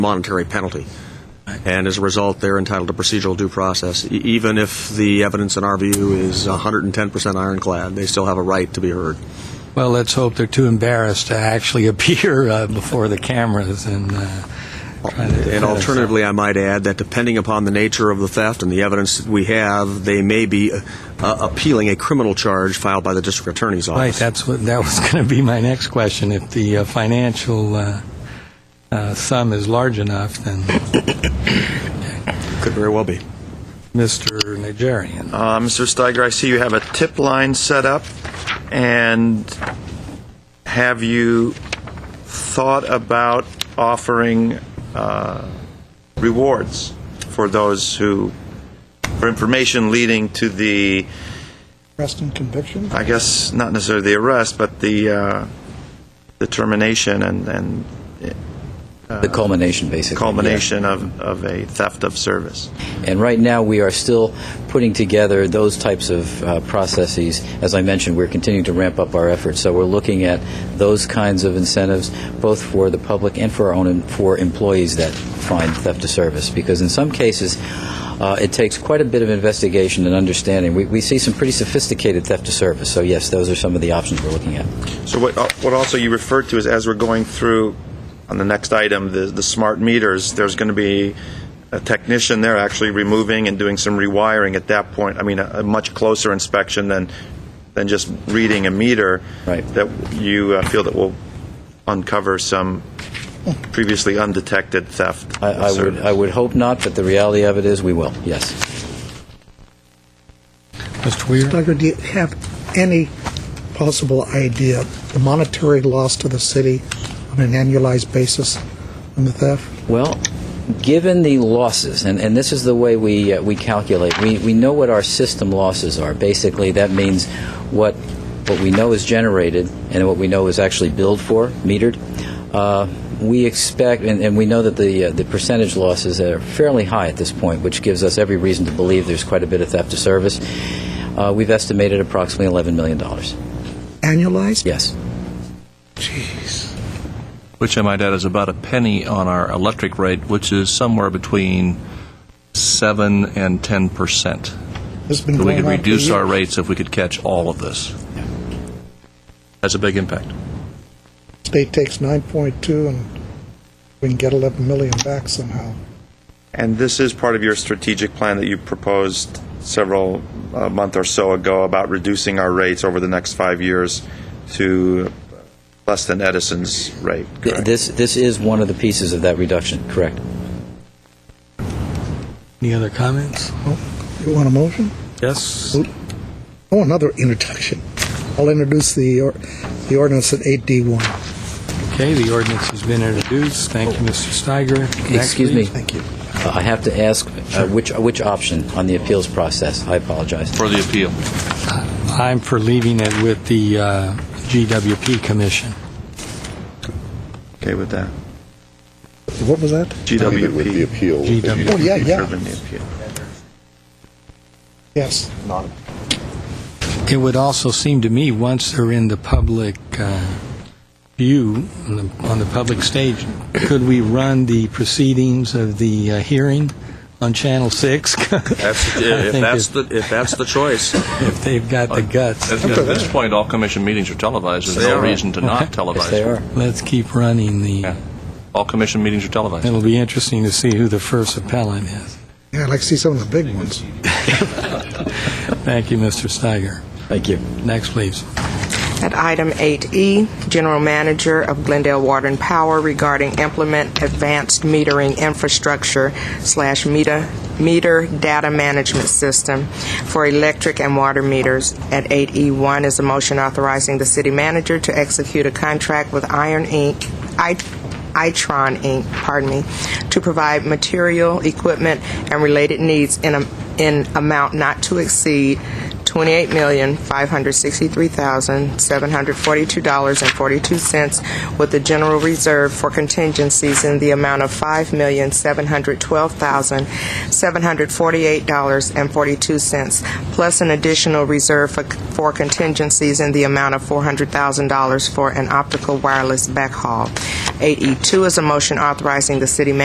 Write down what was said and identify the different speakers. Speaker 1: monetary penalty. And as a result, they're entitled to procedural due process. E- Even if the evidence, in our view, is 110% ironclad, they still have a right to be heard.
Speaker 2: Well, let's hope they're too embarrassed to actually appear uh, before the cameras and. Uh, try to defend
Speaker 1: And alternatively, I might add that depending upon the nature of the theft and the evidence that we have, they may be uh, appealing a criminal charge filed by the district attorney's office.
Speaker 2: Right, that's what, that was going to be my next question. If the uh, financial uh, uh, sum is large enough, then
Speaker 1: Could very well be.
Speaker 2: Mr. Nigerian.
Speaker 3: Uh, Mr. Steiger, I see you have a tip line set up, and have you thought about offering uh, rewards for those who, for information leading to the,
Speaker 4: Arrest and conviction?
Speaker 3: I guess, not necessarily the arrest, but the, uh, the termination and, and uh,
Speaker 5: The culmination, basically.
Speaker 3: culmination of, of a theft of service?
Speaker 5: yeah. And right now, we are still putting together those types of uh, processes. As I mentioned, we're continuing to ramp up our efforts. So we're looking at those kinds of incentives, both for the public and for our own em- for employees that find theft of service. Because in some cases, uh, it takes quite a bit of investigation and understanding. We, we see some pretty sophisticated theft of service. So yes, those are some of the options we're looking at.
Speaker 3: So what, uh, what also you referred to is as we're going through on the next item, the, the smart meters, there's going to be a technician there actually removing and doing some rewiring at that point. I mean, a, a much closer inspection than, than just reading a meter.
Speaker 5: Right.
Speaker 3: That you uh, feel that will uncover some previously undetected theft.
Speaker 5: I, I would I would hope not, but the reality of it is we will. Yes.
Speaker 2: Mr. Weir?
Speaker 4: Doug, do you have any possible idea the monetary loss to the city on an annualized basis from the theft?
Speaker 5: Well, given the losses, and, and this is the way we, uh, we calculate, we, we know what our system losses are. Basically, that means what, what we know is generated and what we know is actually billed for, metered. Uh, we expect, and, and we know that the, uh, the percentage losses are fairly high at this point, which gives us every reason to believe there's quite a bit of theft of service. Uh, we've estimated approximately $11 million.
Speaker 4: Annualized?
Speaker 5: Yes.
Speaker 4: Jeez.
Speaker 6: which I might add is about a penny on our electric rate, which is somewhere between seven and ten percent.
Speaker 4: It's been
Speaker 6: So we
Speaker 4: going
Speaker 6: could
Speaker 4: on for
Speaker 6: reduce our
Speaker 4: years.
Speaker 6: rates if we could catch all of this. That's a big impact.
Speaker 4: State takes 9.2 and we can get 11 million back somehow.
Speaker 3: And this is part of your strategic plan that you proposed several a month or so ago about reducing our rates over the next five years to less than Edison's rate.
Speaker 5: Th-
Speaker 3: correct?
Speaker 5: This, this is one of the pieces of that reduction, correct.
Speaker 2: Any other comments?
Speaker 4: Oh, You want a motion?
Speaker 2: Yes.
Speaker 4: Oh, another introduction. I'll introduce the, or- the ordinance at 8D1.
Speaker 2: Okay, the ordinance has been introduced. Thank you, Mr. Steiger. Next,
Speaker 5: Excuse me.
Speaker 2: please.
Speaker 4: Thank you.
Speaker 5: Uh, I have to ask uh, which which option on the appeals process. I apologize.
Speaker 6: For the appeal.
Speaker 2: I'm for leaving it with the uh, GWP Commission.
Speaker 3: Okay with that?
Speaker 4: What was that?
Speaker 7: Leave it with the
Speaker 3: GWP.
Speaker 7: appeal.
Speaker 2: GW.
Speaker 4: Oh, yeah, yeah.
Speaker 3: Driven the appeal.
Speaker 4: Yes.
Speaker 2: It would also seem to me, once they're in the public uh, view, on the- on the public stage, could we run the proceedings of the uh, hearing on Channel 6?
Speaker 1: That's, if, that's the, if that's the choice.
Speaker 2: If they've got the guts,
Speaker 6: At at this point, all commission meetings are televised. There's no reason to not
Speaker 5: Yes,
Speaker 6: televise.
Speaker 5: they are.
Speaker 2: let's keep running the,
Speaker 6: Yeah. All commission meetings are televised.
Speaker 2: it'll be interesting to see who the first appellant is.
Speaker 4: Yeah, I'd like to see some of the big ones.
Speaker 2: Thank you, Mr. Steiger.
Speaker 5: Thank you.
Speaker 2: Next, please.
Speaker 8: At item 8E, General Manager of Glendale Water and Power regarding implement advanced metering infrastructure slash meter meter data management system for electric and water meters. At 8E1 is a motion authorizing the city manager to execute a contract with Iron Inc. I- Itron Inc., pardon me, to provide material, equipment, and related needs in, a, in amount not to exceed $28,563,742.42 with the general reserve for contingencies in the amount of $5,712,748.42 plus an additional reserve for, for contingencies in the amount of E $400,000 for an optical wireless backhaul. 8E2 is a motion authorizing the city manager